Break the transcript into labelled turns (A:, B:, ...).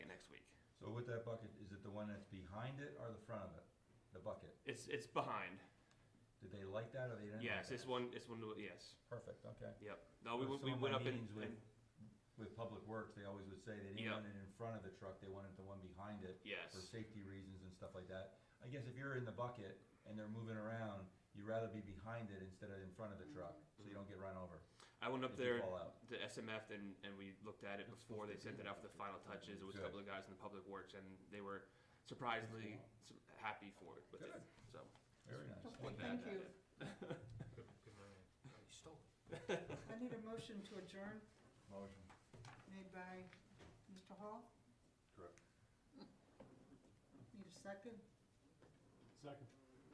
A: with that bucket, is it the one that's behind it or the front of it? The bucket?
B: It's it's behind.
A: Did they like that or they didn't? like
B: Yes,
A: that?
B: it's one. It's one. Yes.
A: Perfect, okay.
B: Yep. No, we,
A: Some
B: went- we
A: of my
B: went up and,
A: meetings with-
B: and-
A: With Public Works, they always would say they didn't
B: Yeah.
A: want it in front of the truck, they wanted the one behind it.
B: Yes.
A: For safety reasons and stuff like that. I guess if you're in the bucket and they're moving around, you'd rather be behind it instead of in front of the truck, so you don't get run over.
B: I went up
A: Did you
B: there
A: fall out?
B: to SMF and, and we looked at it before they sent it out for the final touches. It was a
A: Good.
B: couple of guys in the public works and they were surprisingly su- happy for it with it.
A: Good.
B: So
A: Very nice.
B: wasn't bad at
C: Thank you.
B: it.
C: I need a motion to adjourn,
A: Motion.
C: made by Mr. Hall.
A: Correct.
C: Need a second?
D: Second.